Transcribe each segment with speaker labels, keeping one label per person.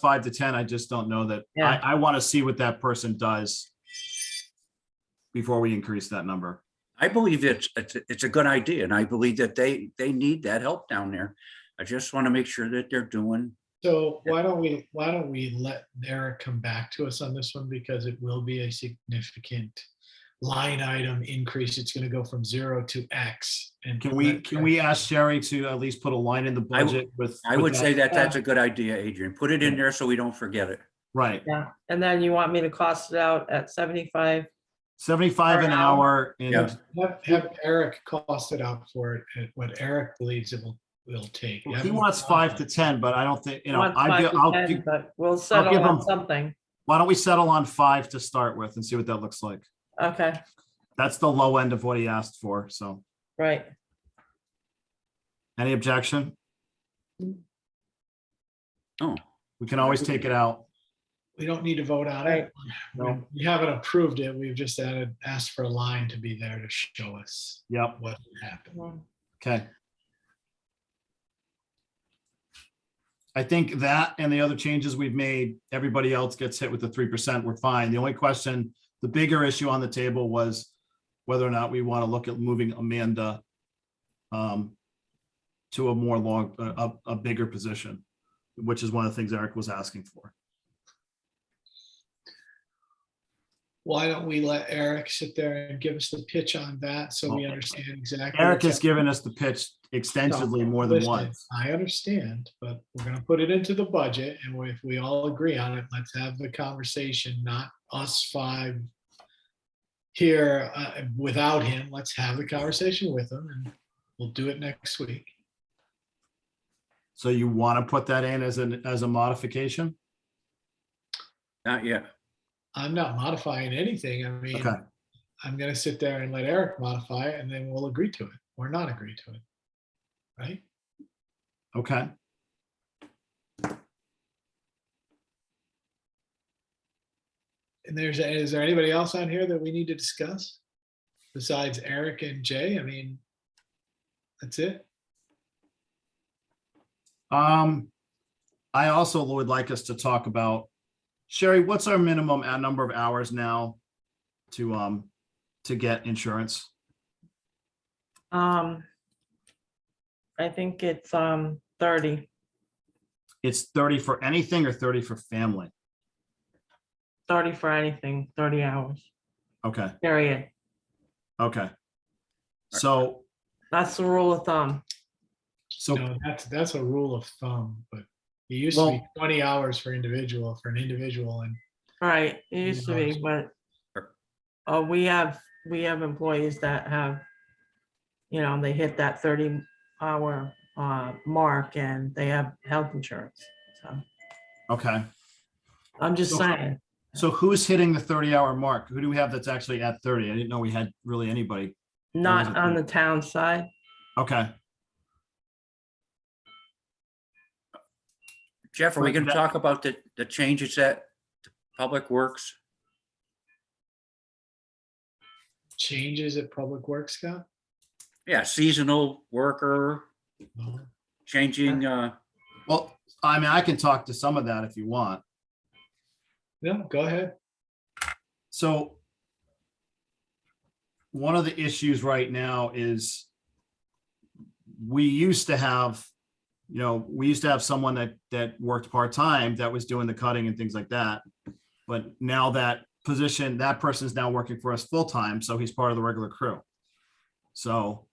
Speaker 1: five to ten, I just don't know that.
Speaker 2: Yeah.
Speaker 1: I, I want to see what that person does before we increase that number.
Speaker 3: I believe it's, it's, it's a good idea and I believe that they, they need that help down there. I just want to make sure that they're doing,
Speaker 4: So
Speaker 3: Yeah.
Speaker 4: why don't we, why don't we let Eric come back to us on this one because it will be a significant line item increase. It's gonna go from zero to X. And
Speaker 1: Can we,
Speaker 4: let
Speaker 1: can
Speaker 4: Eric-
Speaker 1: we ask Sherry to at least put a line in the
Speaker 3: I w-
Speaker 1: budget with?
Speaker 3: I
Speaker 1: with
Speaker 3: would say that that's a good idea, Adrian. Put it in there so we don't forget it.
Speaker 1: Right,
Speaker 2: Yeah, and then you want me to cost it out at seventy-five?
Speaker 1: seventy-five an
Speaker 2: Per
Speaker 1: hour and
Speaker 3: Yeah.
Speaker 4: Have, have Eric cost it out for it, at what Eric believes it will, will take. You
Speaker 1: he
Speaker 4: haven't
Speaker 1: wants five to
Speaker 4: decided.
Speaker 1: ten, but I don't think, you know,
Speaker 2: want
Speaker 1: I,
Speaker 2: five
Speaker 1: do-
Speaker 2: to
Speaker 1: I'll,
Speaker 2: 10,
Speaker 1: do-
Speaker 2: But we'll settle
Speaker 1: give
Speaker 2: on
Speaker 1: them-
Speaker 2: something.
Speaker 1: why don't we settle on five to start with and see what that looks like?
Speaker 2: Okay,
Speaker 1: That's the low end of what he asked for, so.
Speaker 2: right.
Speaker 1: Any objection?
Speaker 3: Oh,
Speaker 1: We can always take it out.
Speaker 4: We don't need to vote on it.
Speaker 1: No.
Speaker 4: We haven't approved it. We've just added, asked for a line to be there to show us
Speaker 1: Yep,
Speaker 4: what happened.
Speaker 2: Mhm.
Speaker 1: okay. I think that and the other changes we've made, everybody else gets hit with the three percent, we're fine. The only question, the bigger issue on the table was whether or not we want to look at moving Amanda um, to a more long, a, a a bigger position, which is one of the things Eric was asking for.
Speaker 4: Why don't we let Eric sit there and give us the pitch on that so we
Speaker 1: Well,
Speaker 4: understand exactly?
Speaker 1: Eric
Speaker 4: what's
Speaker 1: has given us the pitch extensively more than
Speaker 4: Listen,
Speaker 1: once.
Speaker 4: I understand, but we're gonna put it into the budget and we- if we all agree on it, let's have the conversation, not us five here uh, without him. Let's have the conversation with him and we'll do it next week.
Speaker 1: So you want to put that in as an, as a modification?
Speaker 3: not yet.
Speaker 4: I'm not modifying anything. I mean,
Speaker 1: Okay.
Speaker 4: I'm gonna sit there and let Eric modify it and then we'll agree to it or not agree to it. Right?
Speaker 1: Okay.
Speaker 4: And there's, is there anybody else on here that we need to discuss? Besides Eric and Jay, I mean, that's it.
Speaker 1: Um, I also would like us to talk about, Sherry, what's our minimum uh, number of hours now to, um, to get insurance?
Speaker 2: Um, I think it's, um, thirty.
Speaker 1: It's thirty for anything or thirty for family?
Speaker 2: 30 for anything, 30 hours,
Speaker 1: Okay,
Speaker 2: period.
Speaker 1: okay. So,
Speaker 2: That's the rule of thumb.
Speaker 1: so,
Speaker 4: No, that's, that's a rule of thumb, but it used to be
Speaker 1: Well-
Speaker 4: twenty hours for individual, for an individual and
Speaker 2: Right, it used to be, but uh, we have, we have employees that have, you know, they hit that 30 hour uh, mark and they have health insurance. So
Speaker 1: okay.
Speaker 2: I'm just
Speaker 1: Okay.
Speaker 2: saying,
Speaker 1: So who's hitting the thirty hour mark? Who do we have that's actually at thirty? I didn't know we had really anybody.
Speaker 2: not
Speaker 1: it
Speaker 2: on the
Speaker 1: good?
Speaker 2: town side.
Speaker 1: Okay,
Speaker 3: Jeff, are we going to
Speaker 1: That-
Speaker 3: talk about the, the changes that Public Works?
Speaker 4: changes at Public Works, Scott?
Speaker 3: Yeah, seasonal worker,
Speaker 4: No.
Speaker 3: changing, uh,
Speaker 1: well, I mean, I can talk to some of that if you want.
Speaker 4: No, go ahead.
Speaker 1: So one of the issues right now is we used to have, you know, we used to have someone that, that worked part-time that was doing the cutting and things like that. But now that position, that person is now working for us full-time, so he's part of the regular crew. So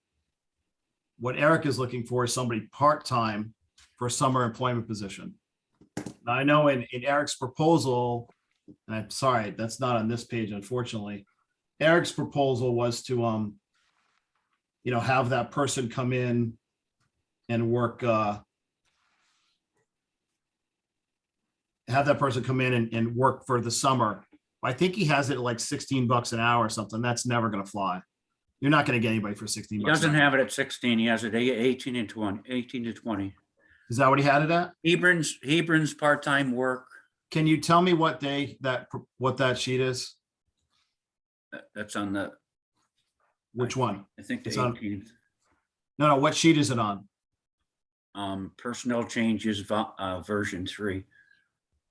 Speaker 1: what Eric is looking for is somebody part-time for a summer employment position. Now, I know in, in Eric's proposal, and I'm sorry, that's not on this page, unfortunately. Eric's proposal was to, um, you know, have that person come in and work, uh, have that person come in and, and work for the summer. I think he has it at like sixteen bucks an hour or something. That's never gonna fly. You're not gonna get anybody for sixteen
Speaker 3: he
Speaker 1: bucks. an
Speaker 3: doesn't
Speaker 1: hour.
Speaker 3: have it at sixteen, he has it at eighteen and twenty, eighteen to twenty.
Speaker 1: Is that what he had it at?
Speaker 3: Hebron's, Hebron's part-time work,
Speaker 1: Can you tell me what day that, pr- what that sheet is?
Speaker 3: that- that's on the,
Speaker 1: Which one?
Speaker 3: I think the
Speaker 1: It's on-
Speaker 3: eighteenth.
Speaker 1: No, no, what sheet is it on?
Speaker 3: Um, personnel changes, vo- uh, version three.